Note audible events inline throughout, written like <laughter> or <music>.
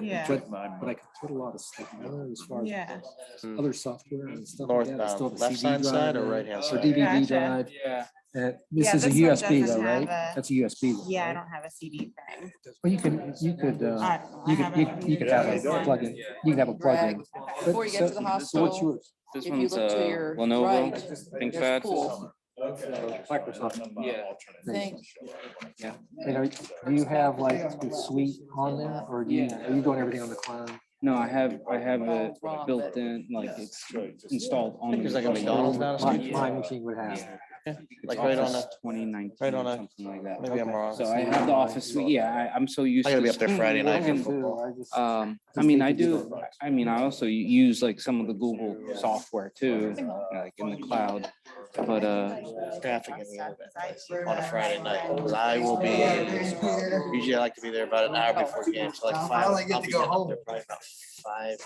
Yeah. But but I could put a lot of stuff in there as far as Yeah, Hmm. Mm. other software and stuff. like that. It's still Northbound, the um, left CD hand side or drive right hand Or side? DVD Gotcha. drive. Yeah. Uh, This Yeah, is a this one USB though, doesn't right? have a- That's a USB. one, yeah, I right? don't have a CD thing. Well, you can, you could, I uh, don't know. I you have could, it you on could- you could the have other a one. plug-in, you can have a plug-in. Right. Before you get to the So what's hospital, yours? This if you one's look to a your Lenovo right, there's ThinkPad. pool. Microsoft. Yeah. Thank- And are, do you have like the suite on there or do you, Yeah. are you doing everything on the cloud? No, I have, I have it Well, wrong, built but- in, like it's installed on. think there's like a the- McDonald's now or My, something? my machine would have. It's Like right on Office a- 2019, right on a- Something like that. Maybe I'm wrong. So I have the office suite, yeah, I, I'm so used I to. gotta be up there Friday night for And, football. I just- <laughs> Um, I Just mean, think I if you do, I mean, I also use like some of the Google software too, uh, like in the cloud, but, uh, Traffic in the other bit on a Friday night, 'cause I will be, usually I like to be there about an hour before game, so like five. Finally get I'll to be go up there home. probably about Five.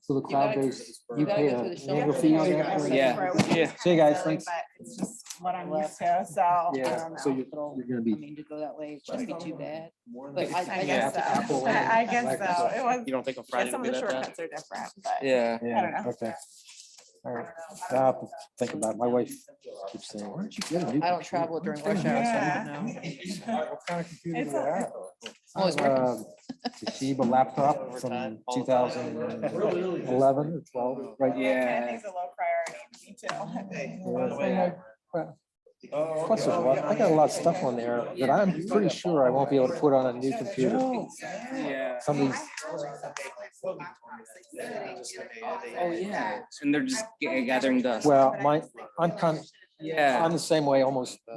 So the cloud-based, you gotta pay go a through the shoulder. annual fee on that? or- Yeah. yeah. See you guys, thanks. But It's just what I'm used to, so I Yeah, don't so know. you're, you're gonna I be. mean, to go that way, it shouldn't be too bad. But I, I I guess guess so. Apple I I and guess so. It was, You don't think on yeah, Friday some would of be the that bad? shortcuts are different, but Yeah. I don't know. Okay. All right. I'll have to think about it. My wife keeps saying, why don't you get a new? I don't travel during rush hour, so I Yeah. don't know. What kind of computer It's do I a- have? Oh, it's working. Uh, Toshiba laptop from Overtime, all two the thousand time. eleven or twelve, right? Yeah. Yeah. It's a low priority, me too. Oh, Plus, there's a lot- I got a lot of stuff on there that I'm pretty sure I won't be able to put on a new computer. <laughs> Yeah. Some of these Oh, yeah. And they're just ga- gathering dust. Well, my, I'm kind, Yeah. I'm the same way almost uh,